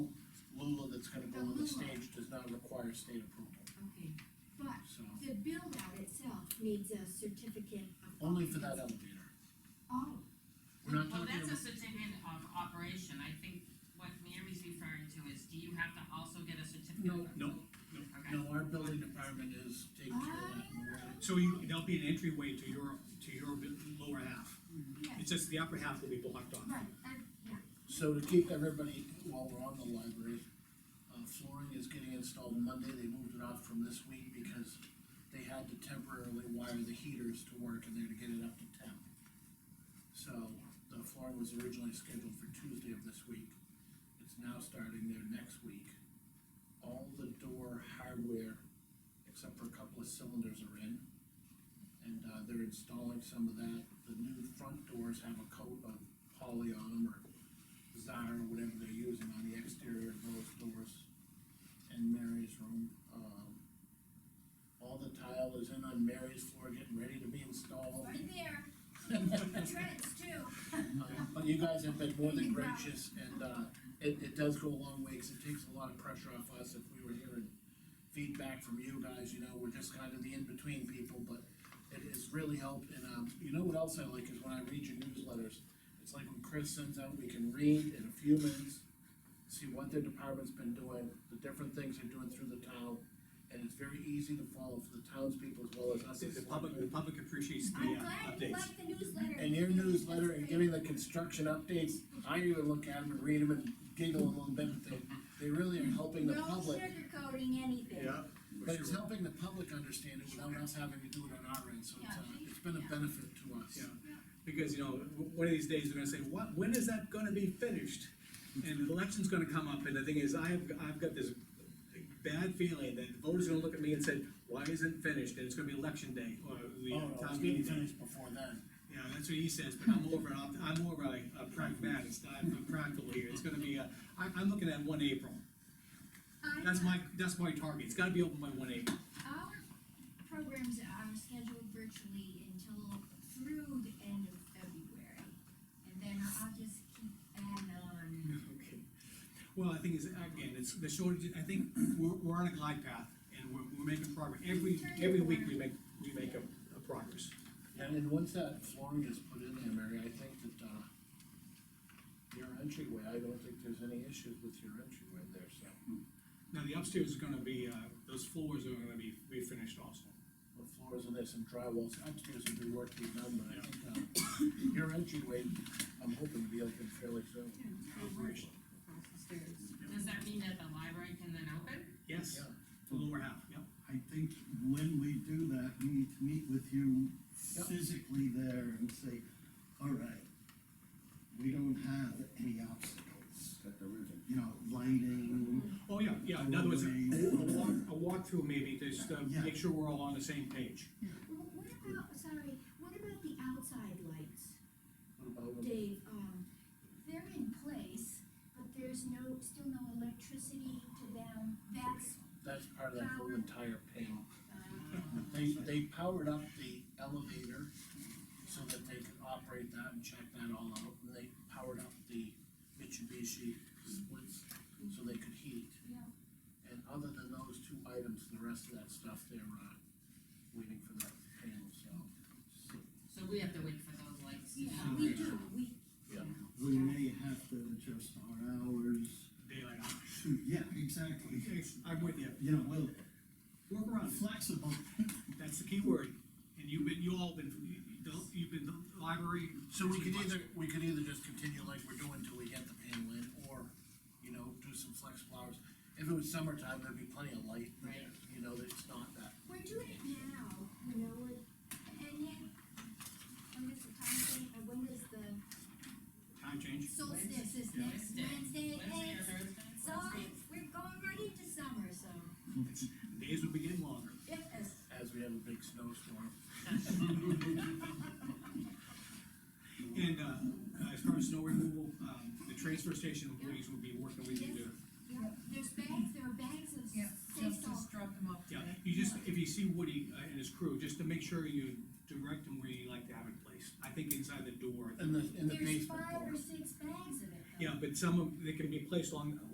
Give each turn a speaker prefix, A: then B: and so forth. A: that's gonna go on the stage does not require state approval,
B: Okay, but
A: so,
B: the build out itself needs a certificate of.
A: only for that
B: occupancy.
A: elevator.
B: Oh,
A: We're not
C: Well,
A: talking
C: that's
A: about,
C: a certificate of operation, I think what Mary's referring to is, do you have to also get a certificate?
A: No.
C: of-
D: No,
C: Okay,
A: no, our building department is taking care of that, and we're gonna-
D: So you, there'll be an entryway to your, to your bit- lower half.
B: yeah,
D: It's just the upper half will be blocked off.
B: right, uh, yeah,
A: So to keep everybody, while we're on the library, uh, flooring is getting installed Monday, they moved it off from this week because they had to temporarily wire the heaters to work in there to get it up to temp. So the flooring was originally scheduled for Tuesday of this week, it's now starting there next week. All the door hardware, except for a couple of cylinders are in. And, uh, they're installing some of that, the new front doors have a coat of poly on them or Zara, whatever they're using on the exterior of those doors in Mary's room. Um, All the tile is in on Mary's floor, getting ready to be installed.
B: right there. Treads too.
A: Um, But you guys have been more than gracious, and, uh, it, it does go a long way, 'cause it takes a lot of pressure off us if we were hearing feedback from you guys, you know, we're just kind of the in-between people, but it has really helped, and, um, you know what else I like is when I read your newsletters, it's like when Chris sends out, we can read in a few minutes, see what their department's been doing, the different things they're doing through the town, and it's very easy to follow for the townspeople as well as us.
D: The,
A: as
D: the public, the
A: selectmen.
D: public appreciates the
B: I'm
D: uh,
B: glad you
D: updates.
B: like the newsletter.
A: And your
B: It's
A: newsletter and
B: great.
A: giving the construction updates, I even look at them and read them and giggle a little bit, but they, they really are helping the
B: No
A: public.
B: sugarcoating anything.
A: But it's helping the public understand it without us having to do it on our end, so it's, uh, it's been a benefit to us.
D: Yeah, because, you know, w- one of these days, they're gonna say, what, when is that gonna be finished? And the election's gonna come up, and the thing is, I've, I've got this bad feeling that the voters are gonna look at me and say, why isn't it finished, and it's gonna be election day, or the
A: Oh,
D: uh,
A: no, it's
D: town
A: getting
D: meeting day.
A: finished before then.
D: Yeah, that's what he says, but I'm over, I'm, I'm over a a pragmatist, I'm practical here, it's gonna be, uh, I, I'm looking at one April.
E: I-
D: That's my, that's my target, it's gotta be open by one April.
E: Our programs are scheduled virtually until through the end of February, and then I'll just keep adding on.
D: Okay. Well, I think is, again, it's the shortage, I think we're, we're on a glide path and we're, we're making progress. Every, every week we make, we make a, a progress.
A: And then once that flooring is put in there, Mary, I think that, uh, your entryway, I don't think there's any issues with your entryway there, so.
D: Now, the upstairs is gonna be, uh, those floors are gonna be, be finished also.
A: the floors and there's some drywalls upstairs will be worked to be done, but I think, uh, your entryway, I'm hoping to be open fairly soon.
C: does that mean that the library can then open?
D: Yes,
A: Yeah,
D: the lower half, yep.
F: I think when we do that, we need to meet with you
A: Yep.
F: physically there and say, all right, we don't have any obstacles,
G: Cut the ribbon.
F: you know, lighting,
D: Oh, yeah, yeah, in other words, a a walk, a walkthrough maybe, just to
F: Yeah.
D: make sure we're all on the same page.
E: Wh- What about, sorry, what about the outside lights,
A: what about them?
E: Dave? Um, they're in place, but there's no, still no electricity to them, that's,
A: Um, That's part of that whole entire panel.
E: uh,
A: They, they powered up the elevator so that they could operate that and check that all out, and they powered up the Mitsubishi splits so they could heat.
E: Yeah.
A: And other than those two items, the rest of that stuff, they're, uh, waiting for that panel, so.
C: So we have to wait for those lights. to
E: yeah,
C: come
E: we
C: on.
E: do, we.
A: Yeah.
F: we may have to adjust our hours.
D: Daylight hours.
F: Shoot, yeah, exactly.
D: I'm with you.
F: You know, we'll
D: Work around it.
F: flexible.
D: That's the key word. And you've been, you all been, you've been the library.
A: So we could either, we could either just continue like we're doing till we get the panel in, or, you know, do some flexible hours. If it was summertime, there'd be plenty of light, but,
C: Right.
A: you know, it's not that.
E: We're doing it now, you know, and and yet, when does the time thing, uh, when does the
D: Time change.
E: solstice is next
C: Wednesday.
E: Wednesday?
C: Wednesday or
E: and
C: Thursday?
E: Sorry, we're going right into summer, so,
D: Days will be getting longer.
E: yes.
A: As we have a big snowstorm.
D: And, uh, as far as snow removal, um, the transfer station employees will be working with you there.
E: Yeah, there's bags, there are bags of
H: Yeah,
E: sea
H: just,
E: salt.
H: just drop them off
D: Yeah,
H: today.
D: you just, if you see Woody uh, and his crew, just to make sure you direct them where you like to have it placed. I think inside the door.
A: In the, in the
E: There's
A: basement
E: five
A: door.
E: or six bags of it. though.
D: Yeah, but some of, they can be placed along,